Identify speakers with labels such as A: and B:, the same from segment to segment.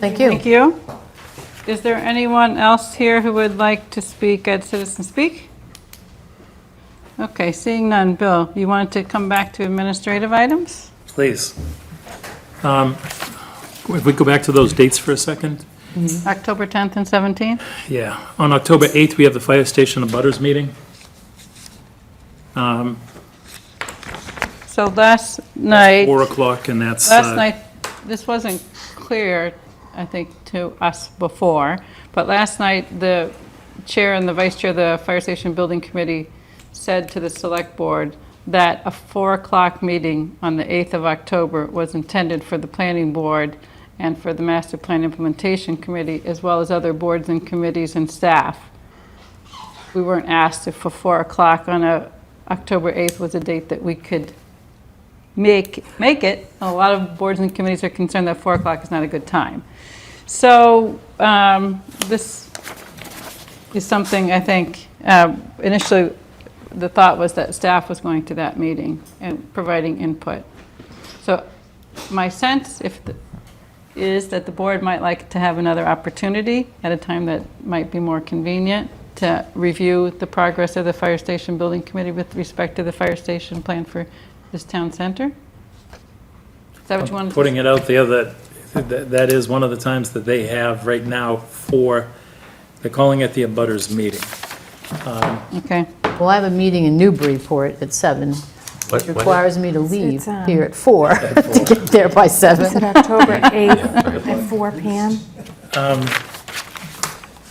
A: Thank you.
B: Thank you. Is there anyone else here who would like to speak at Citizen Speak? Okay, seeing none. Bill, you wanted to come back to administrative items?
C: Please. Um, If we go back to those dates for a second?
B: October 10th and 17th?
C: Yeah. On October 8th, we have the fire station and butters meeting. Um,
B: So last night,
C: 4 o'clock, and that's... uh,
B: last night, this wasn't clear, I think, to us before, but last night, the chair and the vice chair of the Fire Station Building Committee said to the select board that a 4 o'clock meeting on the 8th of October was intended for the planning board and for the master plan implementation committee, as well as other boards and committees and staff. We weren't asked if a 4 o'clock on a, October 8th was a date that we could make, make it. A lot of boards and committees are concerned that 4 o'clock is not a good time. So um, this is something, I think, um, initially, the thought was that staff was going to that meeting and providing input. So my sense if, the- is that the board might like to have another opportunity at a time that might be more convenient to review the progress of the Fire Station Building Committee with respect to the fire station plan for this town center? Is that what you wanted to
C: Putting it out there that, that that is one of the times that they have right now for, they're calling it the abutters meeting.
B: Okay.
A: Well, I have a meeting in Newburyport at seven.
D: What-
A: It
D: what-
A: requires me to leave
E: it's, um,
A: here at four to get there by
E: Is it
A: seven.
E: October 8th at 4 PM?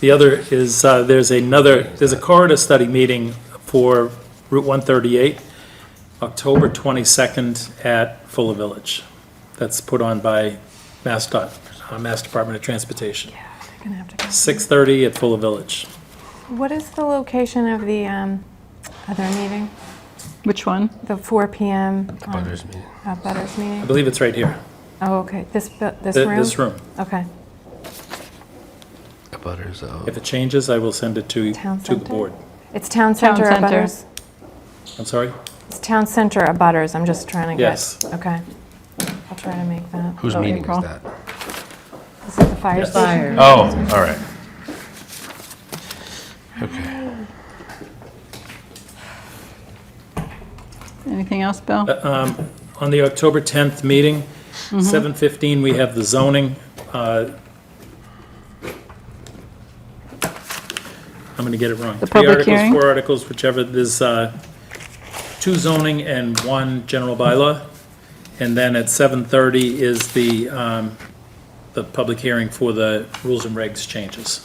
C: The other is, uh, there's another, there's a corridor study meeting for Route 138, October 22nd at Fuller Village. That's put on by Mass Dot, uh, Mass Department of Transportation.
E: They're gonna have to go.
C: 6:30 at Fuller Village.
E: What is the location of the um, other meeting?
B: Which one?
E: The 4 PM on-
D: Butters meeting.
E: uh, Butters
C: I
E: meeting?
C: believe it's right here,
E: Oh, okay, this, bu- this
C: Th-
E: room?
C: this room.
E: Okay.
D: The butters uh,
B: Oh,
D: out.
C: If it changes, I will send it to,
E: Town
C: to the
E: center?
C: board.
E: It's Town Center
B: center.
E: Butters?
C: I'm sorry?
E: It's Town Center Butters, I'm just trying to get.
C: Yes.
E: Okay. I'll try to make that.
D: Whose
B: Oh,
D: meeting
B: April.
D: is that?
E: Is it the fire
C: Yes.
E: station?
D: Oh, all right. Okay.
B: Anything else, Bill?
C: On the October 10th meeting,
B: Mm-hmm.
C: 7:15, we have the zoning. uh, I'm going to get it wrong.
B: The public
C: Three
B: hearing?
C: articles, four articles, whichever, there's uh, two zoning and one general bylaw. And then at 7:30 is the, um, the public hearing for the rules and regs changes.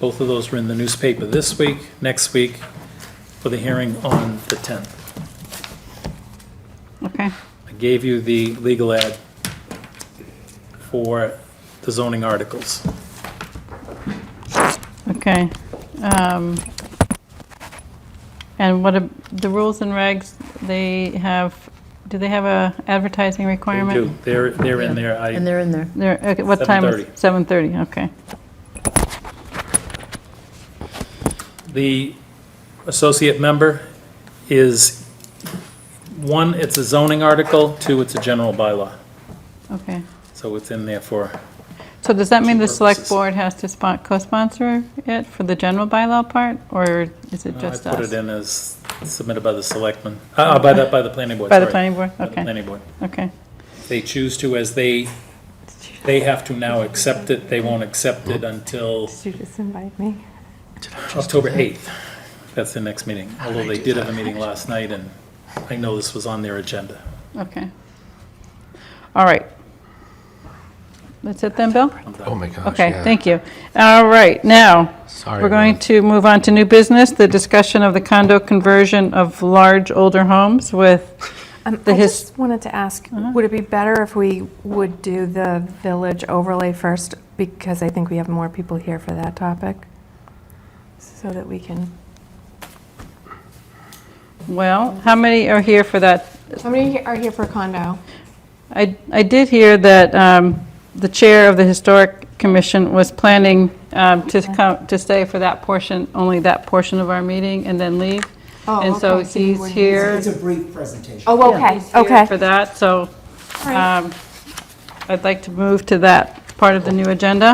C: Both of those were in the newspaper this week, next week, for the hearing on the 10th.
B: Okay.
C: I gave you the legal ad for the zoning articles.
B: Okay. um, And what, ab- the rules and regs, they have, do they have a advertising
C: They
B: requirement?
C: do. They're, they're in there.
A: And
C: I,
A: they're in there.
B: They're, okay, what time? is-
C: 7:30.
B: 7:30, okay.
C: the associate member is, one, it's a zoning article, two, it's a general bylaw.
B: Okay.
C: So it's in there for,
B: So does that mean the select
C: purposes.
B: board has to spon- co-sponsor it for the general bylaw part, or is it
C: Uh, I
B: just us?
C: put it in as submitted by the selectmen, uh, uh, by the, by the planning board,
B: By the
C: sorry.
B: planning board?
C: By the
B: Okay,
C: planning board.
B: okay.
C: They choose to as they, they have to now accept it. They won't accept it until
E: Did you just invite me?
C: October 8th, that's the next meeting, although they did have a meeting last night, and I know this was on their agenda.
B: Okay. All right. That's it then, Bill?
D: Oh, my gosh.
B: Okay, thank you. All right, now,
D: Sorry,
B: we're going
D: Ron.
B: to move on to new business, the discussion of the condo conversion of large older homes with,
E: Um,
B: The
E: I
B: his- Uh-huh.
E: just wanted to ask, would it be better if we would do the village overlay first? Because I think we have more people here for that topic, so that we can,
B: well, how many are here for that?
E: how many are here for condo?
B: I I did hear that um, the chair of the Historic Commission was planning um, to come, to stay for that portion, only that portion of our meeting, and then leave.
E: Oh,
B: And so
E: okay, so you
B: he's
E: wouldn't-
B: here.
F: It's a brief presentation.
E: Oh, okay,
B: He's here
E: okay.
B: For that, so
E: All right.
B: um, I'd like to move to that part of the new agenda.